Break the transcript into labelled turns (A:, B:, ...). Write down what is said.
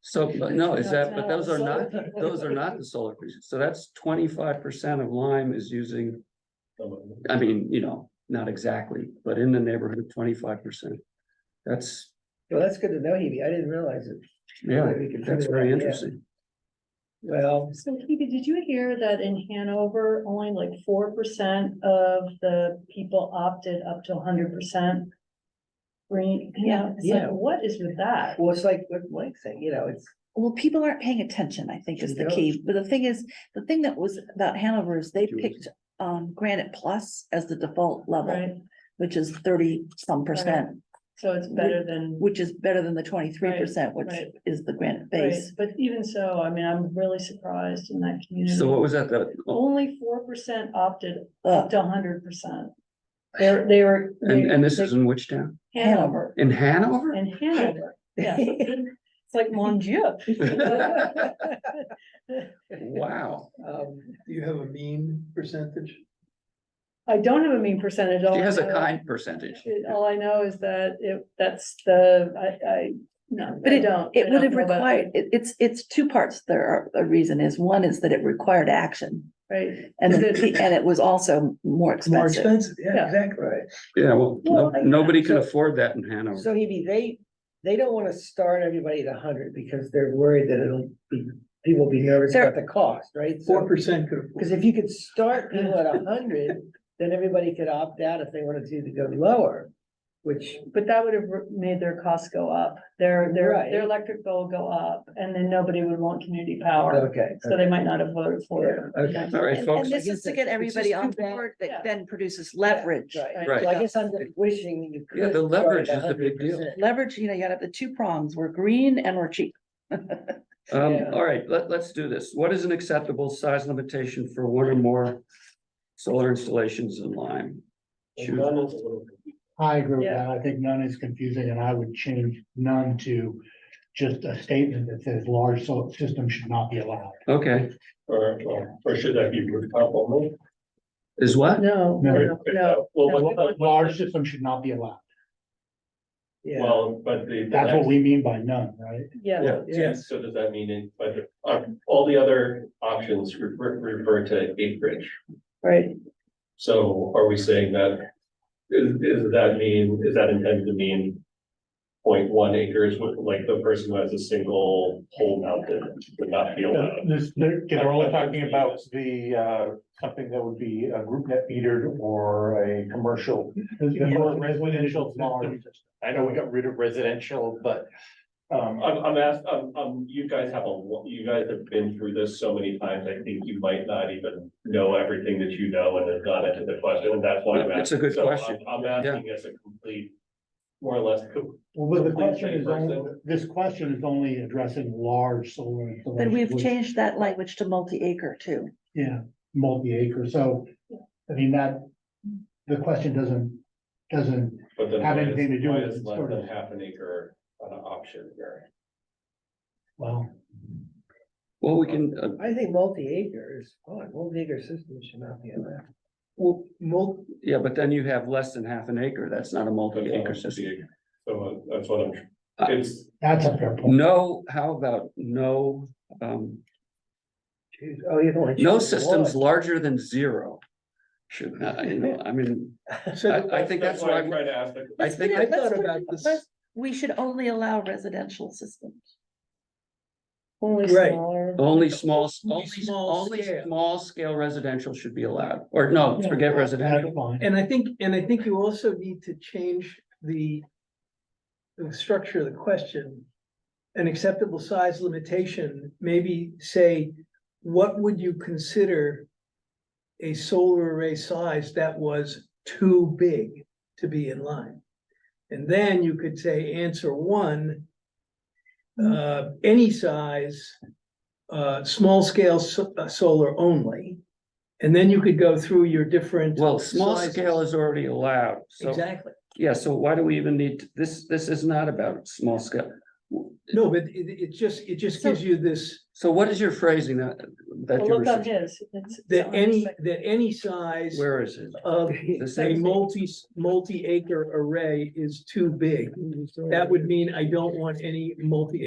A: So, but no, is that, but those are not,
B: Solar.
A: those are not the solar creatures. So that's twenty-five percent of Lyme is using, I mean, you know, not exactly, but in the neighborhood of twenty-five percent. That's,
B: Well, that's good to know, Hebe. I didn't realize it.
A: yeah,
B: Maybe we can
A: that's
B: figure
A: very
B: that out.
A: interesting.
B: Well,
C: So Hebe, did you hear that in Hanover, only like four percent of the people opted up to hundred percent? Green, yeah, it's like,
B: Yeah.
C: what is with that?
B: well, it's like what Mike said, you know, it's,
D: Well, people aren't paying attention, I think is
B: They
D: the key, but the thing is, the thing that was about Hanover is they picked um Granite Plus as the default level.
C: Right,
D: Which is thirty some percent,
C: so it's better than.
D: which is better than the twenty-three percent, which
C: right.
D: is the granite
C: Right,
D: base.
C: But even so, I mean, I'm really surprised in that community.
A: So what was that? The, oh,
C: Only four percent opted
D: Uh,
C: up to hundred percent. They're, they were.
A: and, and this
C: they-
A: is in which town?
C: Hanover,
A: In Hanover?
C: in Hanover, yeah. It's like, mon Dieu.
A: Wow.
B: um,
E: Do you have a mean percentage?
C: I don't have a mean percentage. all
A: She has
C: I
A: a
C: know-
A: kind percentage.
C: it- All I know is that it, that's the, I, I, no,
D: But
C: I don't. I
D: It would
C: don't
D: have
C: know about-
D: required, it, it's, it's two parts there are, a reason is, one is that it required action.
C: Right,
D: And,
C: Is
D: the-
C: it-
D: and it was also more
E: More
D: expensive.
E: expensive,
C: Yeah.
E: yeah, exactly.
B: right.
A: Yeah, well, no-
C: Well, I-
A: nobody can
B: so-
A: afford that in Hanover.
B: So Hebe, they, they don't wanna start everybody at hundred because they're worried that it'll be, people will be nervous
D: They're-
B: about the cost, right? So-
E: Four percent could. afford
B: Cause if you could start people at hundred, then everybody could opt out if they wanted to to go lower, which,
C: but that would have re- made their costs go up, their, their,
B: Right.
C: their electric bill go up, and then nobody would want community power.
B: okay.
C: So they might not have voted for it.
B: Yeah, okay.
A: All right,
D: And, and
A: folks.
D: this is to get everybody
B: just
D: on
B: too bad.
D: board
C: Yeah.
D: that then produces leverage.
B: Right,
A: Right.
B: so I guess I'm just wishing you could.
A: Yeah, the
B: start at
A: leverage is the big deal.
B: 100%.
D: Leverage, you know, you gotta have the two prongs, we're green and we're cheap.
A: Um,
B: Yeah.
A: all right, let, let's do this. What is an acceptable size limitation for one or more solar installations in Lyme? Choose-
F: I agree with
C: Yeah.
F: that. I think none is confusing and I would change none to just a statement that says large solar system should not be allowed.
A: Okay,
G: Or, or- or should that be rooftop only?
A: is what?
C: No, no,
F: No.
C: no.
G: Uh, Well, what-
F: A Large system should not be allowed.
B: Yeah,
G: Well, but the. the
F: That's what
G: next-
F: we mean by none, right?
C: Yeah,
G: Yeah, yes, so does that mean, it- but the- uh, all the other options refer, refer to acreage.
C: right,
G: So are we saying that, is, is that mean, is that intended to mean 0.1 acres, with like the person who has a single pole mounted would not be allowed?
F: This, they're, they're only talking about the, uh, something that would be a group net metered or a commercial. Residential. I know we got rid of residential, but, um,
G: I'm, I'm asked, um, um, you guys have a, lo- you guys have been through this so many times, I think you might not even know everything that you know and have gone into the question, and that's why I'm asking.
A: It's a good
G: So uh, I'm-
A: question.
G: I'm asking as a complete, more or less, co-
F: Well, but the
G: Complete
F: question is
G: same
F: only,
G: person.
F: this question is only addressing large solar.
D: But
F: installations,
D: we've
F: which-
D: changed that language to multi-acre too.
F: Yeah, multi-acre, so, I mean, that, the question doesn't, doesn't,
G: but then.
F: Have
G: why is-
F: anything to do
G: why
F: with
G: is
F: it,
G: Less
F: sort
G: than
F: of.
G: half an acre an option here.
F: well,
A: Well, we can, uh,
B: I think multi-acre is fine, multi-acre systems should not be allowed.
E: Well, mul-
A: yeah, but then you have less than half an acre. That's not a
G: That's not
A: multi-acre
G: what
A: system.
G: the- So that's what I'm,
A: Uh,
G: it's,
F: that's a fair point.
A: No, how about no, um,
B: Choose- Oh, you don't.
A: no systems larger than zero? Should, not, you know, I mean,
E: so
A: I think that's why
G: I'm
A: we-
G: trying to ask the
A: I
D: Let's put
A: think
D: it-
E: I
D: let's
E: thought
D: put it-
E: about this-
D: let's- We should only allow residential systems.
C: only
E: Right.
C: smaller.
A: only small, only,
E: Only small
A: only
E: scale.
A: small scale residential should be allowed. Or no, forget residential.
F: That's fine.
E: And I think, and I think you also need to change the. The structure of the question. An acceptable size limitation, maybe say, what would you consider? A solar array size that was too big to be in line? And then you could say, answer one. Uh, any size. Uh, small scale so- uh, solar only. And then you could go through your different.
A: Well, small
E: sizes.
A: scale is already allowed, so,
E: Exactly.
A: yeah, so why do we even need, to- this, this is not about small scale.
E: No, but it, it just, it just
C: So-
E: gives you this,
A: So what is your phrasing that, that
C: Well,
A: you were,
C: look on
A: sug-
C: his. It's- it's
E: that
C: on his
E: any,
C: second.
E: that any size
A: where is it?
E: of
A: The
E: a
A: same,
E: multi, multi-acre array is too big. That would mean I don't want any multi